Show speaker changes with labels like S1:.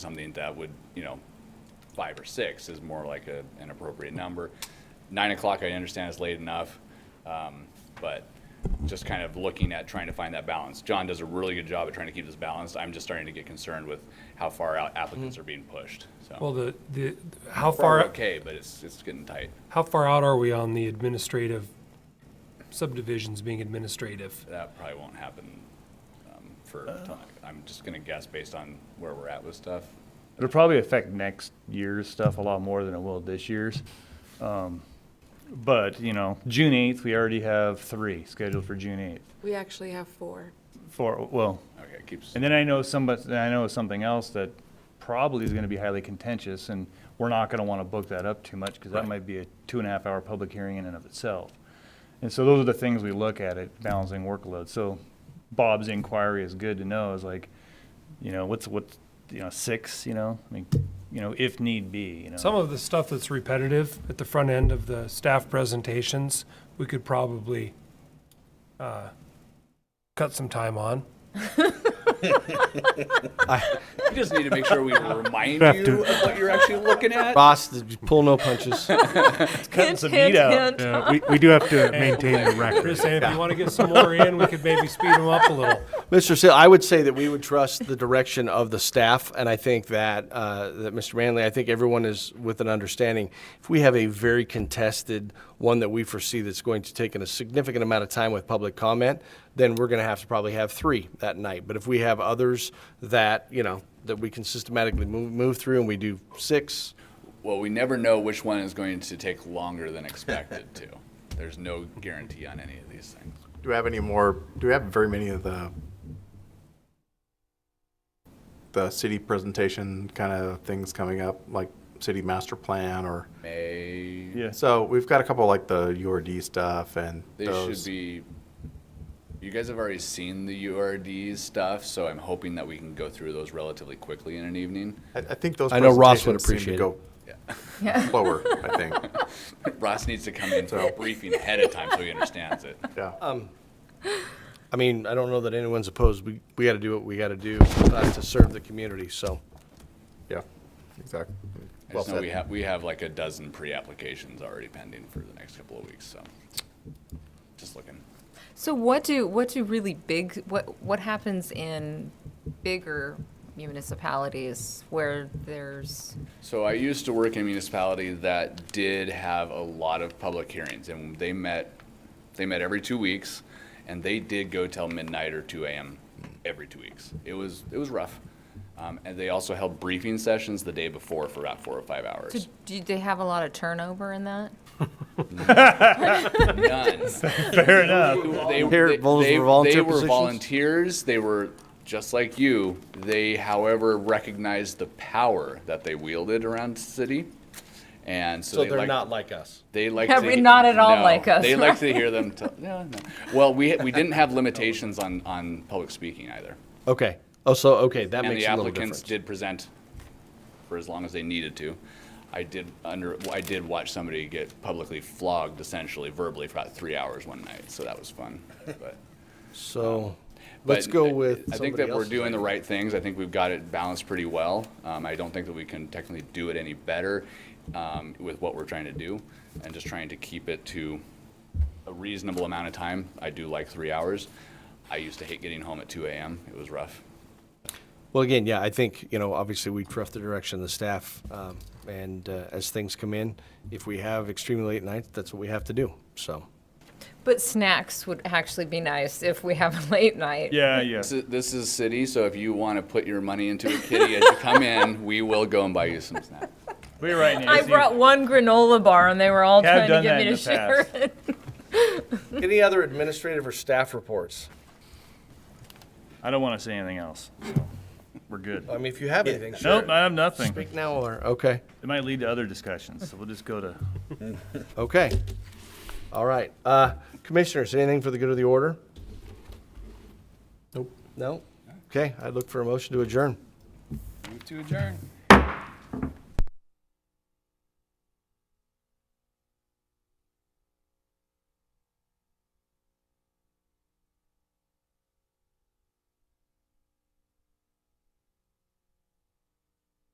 S1: something that would, you know, five or six is more like a, an appropriate number. Nine o'clock, I understand is late enough, um, but just kind of looking at trying to find that balance. John does a really good job at trying to keep this balanced. I'm just starting to get concerned with how far out applicants are being pushed, so.
S2: Well, the, the, how
S1: We're
S2: far,
S1: Okay, but it's, it's getting tight.
S2: how far out are we on the administrative subdivisions being administrative?
S1: That probably won't happen, um, for, till- I'm just gonna guess based on where we're at with stuff.
S3: It'll probably affect next year's stuff a lot more than it will this year's. Um, But, you know, June eighth, we already have three scheduled for June eighth.
S4: We actually have four.
S3: For, well,
S1: Okay, it keeps,
S3: and then I know somebody, I know something else that probably is gonna be highly contentious and we're not gonna wanna book that up too much because that
S1: Right.
S3: might be a two and a half hour public hearing in and of itself. And so those are the things we look at at balancing workload. So Bob's inquiry is good to know is like, you know, what's, what's, you know, six, you know, I mean, you know, if need be, you know.
S2: Some of the stuff that's repetitive at the front end of the staff presentations, we could probably, uh, cut some time on.
S1: you just need to make sure we remind you of what you're actually looking at.
S5: Boss, th- pull no punches.
S3: cutting some meat out.
S6: Yeah, we, we do have to maintain the record.
S2: Chris, and if you want to get some more in, we could maybe speed them up a little.
S5: Mr. Sil, I would say that we would trust the direction of the staff, and I think that, uh, that Mr. Manley, I think everyone is with an understanding. If we have a very contested one that we foresee that's going to take in a significant amount of time with public comment, then we're gonna have to probably have three that night. But if we have others that, you know, that we can systematically move, move through and we do six,
S1: Well, we never know which one is going to take longer than expected to. There's no guarantee on any of these things.
S7: Do we have any more, do we have very many of the, the city presentation kind of things coming up, like city master plan or,
S1: May,
S3: Yes.
S7: so we've got a couple like the URD stuff and
S1: they
S7: those.
S1: should be, you guys have already seen the URD stuff, so I'm hoping that we can go through those relatively quickly in an evening.
S7: I, I think those
S5: I know Ross would
S7: presentations seem
S5: appreciate
S7: to go slower, I think,
S1: Ross needs to come in for a briefing ahead of time so he understands it.
S7: yeah.
S5: Um, I mean, I don't know that anyone's opposed. We, we gotta do what we gotta do uh, to serve the community, so.
S7: Yeah, exactly.
S1: I
S7: Well
S1: just know we
S7: said.
S1: have, we have like a dozen pre-applications already pending for the next couple of weeks, so. Just looking.
S8: So what do what do really big what what happens in bigger municipalities where there's
S1: So I used to work in a municipality that did have a lot of public hearings, and they met, they met every two weeks, and they did go till midnight or two AM every two weeks. It was, it was rough. Um, and they also held briefing sessions the day before for about four or five
S8: do,
S1: hours.
S8: do they have a lot of turnover in that?
S1: None.
S3: Fair enough.
S1: They,
S5: Here,
S1: they-
S5: those
S1: they-
S5: were volunteer
S1: they were
S5: positions?
S1: volunteers. They were just like you. They, however, recognized the power that they wielded around the city, and so,
S5: So
S1: they
S5: they're
S1: liked-
S5: not like us.
S1: They like
S8: Yeah,
S1: to
S8: we're not at all
S1: no,
S8: like us,
S1: They like to hear them. T- no, no. Well, we we didn't have limitations on on public speaking either,
S5: Okay. Oh, so, okay, that
S1: and
S5: makes
S1: the
S5: a little
S1: applicants
S5: difference.
S1: did present for as long as they needed to. I did under I did watch somebody get publicly flogged, essentially verbally, for about three hours one night. So that was fun, but.
S5: So, let's
S1: But
S5: go
S1: I-
S5: with
S1: I think that we're
S5: somebody else's
S1: doing the
S5: idea.
S1: right things. I think we've got it balanced pretty well. Um, I don't think that we can technically do it any better, um, with what we're trying to do and just trying to keep it to a reasonable amount of time. I do like three hours. I used to hate getting home at two AM. It was rough.
S5: Well, again, yeah, I think, you know, obviously we trust the direction of the staff, um, and, uh, as things come in, if we have extremely late nights, that's what we have to do, so.
S8: But snacks would actually be nice if we have a late night.
S3: Yeah, yeah.
S1: This is, this is city, so if you want to put your money into a kitty as you come in, we will go and buy you some snacks.
S3: We're right now.
S8: I brought one granola bar and they were all
S3: Have
S8: trying
S3: done
S8: to get
S3: that
S8: me
S3: in
S8: to
S3: the
S8: share
S3: past.
S8: it.
S5: Any other administrative or staff reports?
S3: I don't wanna say anything else. We're good.
S5: I mean, if you have anything, sure.
S3: Nope, I have nothing.
S5: Speak now or, okay,
S3: It might lead to other discussions, so we'll just go to
S5: okay. All right, uh, commissioners, anything for the good of the order? Nope. No? Okay, I'd look for a motion to adjourn.
S1: To adjourn.